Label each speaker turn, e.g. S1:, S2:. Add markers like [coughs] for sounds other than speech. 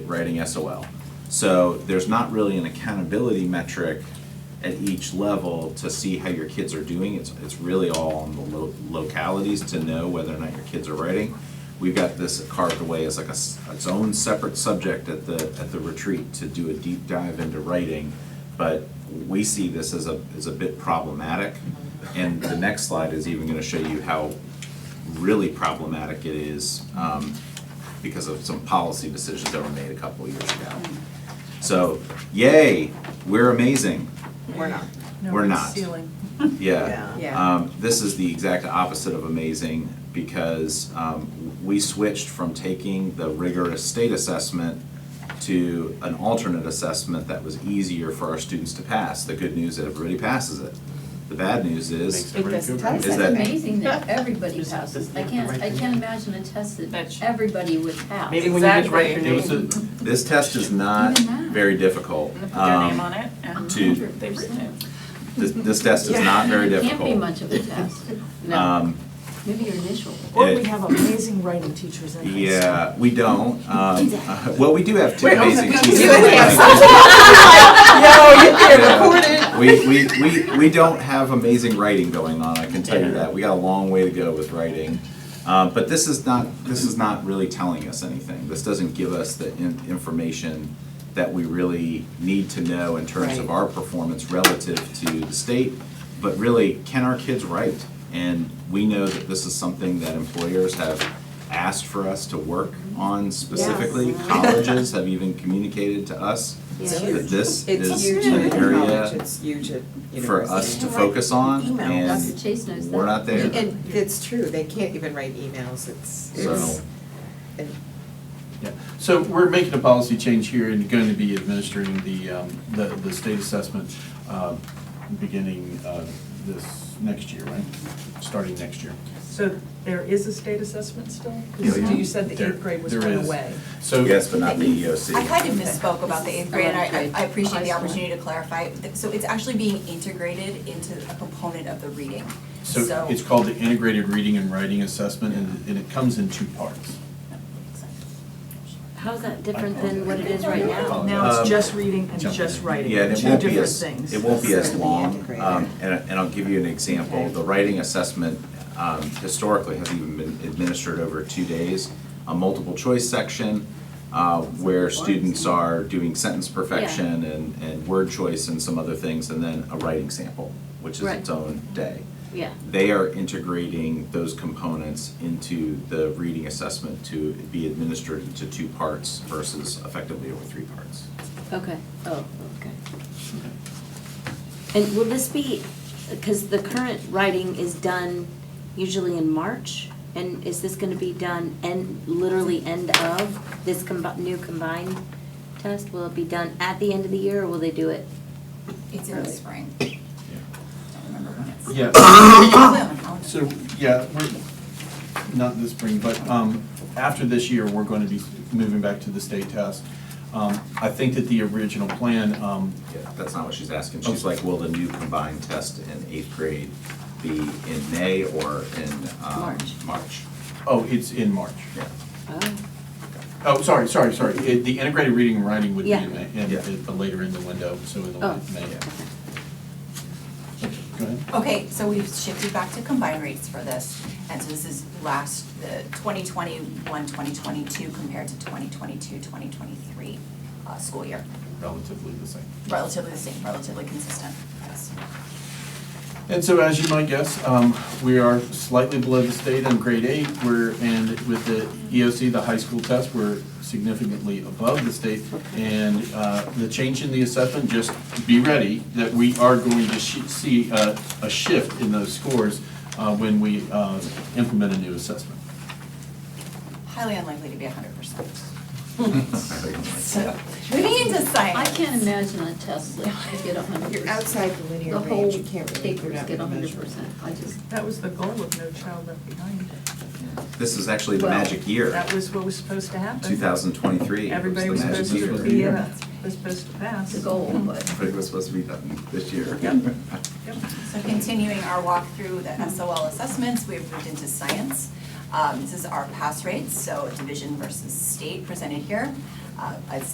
S1: writing SOL. So there's not really an accountability metric at each level to see how your kids are doing. It's, it's really all on the lo- localities to know whether or not your kids are writing. We've got this carved away as like a, s- its own separate subject at the, at the retreat to do a deep dive into writing. But we see this as a, as a bit problematic. And the next slide is even gonna show you how really problematic it is um, because of some policy decisions that were made a couple of years ago. So, yay, we're amazing.
S2: We're not.
S3: No,
S1: We're
S3: it's
S1: not.
S3: Ceiling.
S1: Yeah.
S2: Yeah.
S1: Um, This is the exact opposite of amazing because um, we switched from taking the rigorous state assessment to an alternate assessment that was easier for our students to pass. The good news is everybody passes it. The bad news is,
S4: It doesn't tell us
S1: Is
S4: that.
S1: that-
S5: amazing that everybody
S6: Just-
S5: passes.
S6: just
S5: I
S6: not the
S5: can't,
S6: right
S5: I
S6: thing.
S5: can't imagine a test
S4: That's-
S5: that everybody would pass.
S6: Maybe when you just write your
S4: Exactly.
S6: name.
S1: this test is not
S5: Even that.
S1: very difficult.
S4: And they put their
S1: Um,
S4: name on it and
S1: to-
S4: they've written it.
S1: This, this test is
S5: [laughs]
S1: not very difficult.
S5: Can't be much of
S1: [laughs]
S5: a test. No,
S1: Um,
S5: maybe your initial.
S3: Or
S1: it-
S3: we have amazing writing teachers in high school. oh,
S1: Yeah, we don't. Um, uh, Well, we do have two
S3: [laughs]
S1: amazing [laughs] teachers.
S3: do
S2: have
S1: Yeah. We, we, we, we don't have amazing writing going on, I can tell you
S6: Yeah.
S1: that. We got a long way to go with writing. Uh, But this is not, this is not really telling us anything. This doesn't give us the in- information that we really need to know in terms of
S2: Right.
S1: our performance relative to the state. But really, can our kids write? And we know that this is something that employers have asked for us to work on specifically. Colleges have even communicated to us
S5: It's
S1: that
S2: huge.
S1: this
S2: It's
S1: is
S2: huge
S1: an
S2: at college,
S1: area
S2: it's huge at university.
S1: for us to focus on,
S3: Emails.
S5: Dr.
S1: and
S5: Chase knows that.
S1: we're not there.
S2: And it's true, they can't even write emails, it's, it's,
S1: So-
S2: and
S7: Yeah, so we're making a policy change here and going to be administering the, um, the, the state assessment, um, beginning, uh, this next year, right? Starting next year.
S3: So there is a state assessment still?
S7: Yeah, yeah.
S3: Because you said the
S7: There-
S3: eighth grade was
S7: there
S3: kind
S7: is.
S3: of away.
S7: So.
S1: Yes, but not the E EOC.
S8: I kind of misspoke about the eighth grade, and I- I, I appreciate the opportunity to clarify. So it's actually being integrated into a component of the reading.
S7: So it's called the Integrated Reading and Writing Assessment, and, and it comes in two parts.
S5: How's that different than what it is right now?
S3: Now
S1: Um,
S3: it's just reading and
S7: Jump
S3: just
S7: in.
S3: writing,
S1: Yeah, and it
S3: two
S1: won't be
S3: different
S1: as,
S3: things.
S1: it won't be as long,
S2: Integrated.
S1: um, and, and I'll give you an example,
S2: Okay.
S1: the writing assessment, um, historically has even been administered over two days, a multiple choice section, uh, where students are doing sentence perfection and, and word choice and some other things, and then a writing sample, which is
S5: Right.
S1: its own day.
S5: Yeah.
S1: They are integrating those components into the reading assessment to be administered into two parts versus effectively over three parts.
S5: Okay, oh, okay. And will this be, because the current writing is done usually in March, and is this gonna be done end, literally end of this combi, new combined test? Will it be done at the end of the year, or will they do it?
S8: It's in the spring. I don't remember when it's. [coughs]
S7: Yeah,
S8: It's on the calendar.
S7: so, yeah, we're, not this spring, but, um, after this year, we're going to be moving back to the state test. Um, I think that the original plan, um,
S1: Yeah, that's not what she's asking. She's like, will the new combined test in eighth grade be in May or in, um,
S5: March.
S1: March?
S7: oh, it's in March.
S3: [laughs]
S1: Yeah.
S5: Oh,
S7: Oh, sorry, sorry, sorry. It- The integrated reading and writing would be
S5: Yeah.
S7: in, May- in-
S1: Yeah.
S7: in- but later in the window, so in the
S5: Oh.
S7: May.
S1: Yeah.
S7: Okay, Go ahead.
S8: Okay, so we've shifted back to combined rates for this, and so this is last, the 2021, 2022 compared to 2022, 2023 uh, school year.
S7: Relatively the same.
S8: Relatively the same, relatively consistent, yes.
S7: And so as you might guess, um, we are slightly below the state on grade eight, we're, and with the EOC, the high school test, we're significantly above the state. And, uh, the change in the assessment, just be ready, that we are going to sh- see, uh, a shift in those scores, uh, when we, uh, implement a new assessment.
S8: Highly unlikely to be 100%.
S1: Yeah.
S8: So, moving into science.
S5: I can't imagine a test that you get a hundred
S2: you're
S5: percent.
S2: outside the
S5: The
S2: linear range,
S5: whole
S2: you can't really, you're
S5: papers
S2: not
S5: get a
S2: gonna
S5: hundred
S2: measure.
S5: percent, I just,
S3: That was the goal of No Child Left Behind.
S1: This is actually the
S5: Well,
S1: magic year,
S3: That was what was supposed to happen.
S1: two thousand twenty-three.
S3: Everybody was supposed to be, uh, was supposed to pass.
S5: the goal, but.
S1: But it was supposed to be done this year. [laughs]
S8: So continuing our walk through the SOL assessments, we have moved into science. Um, This is our pass rates, so division versus state presented here. Um, uh, a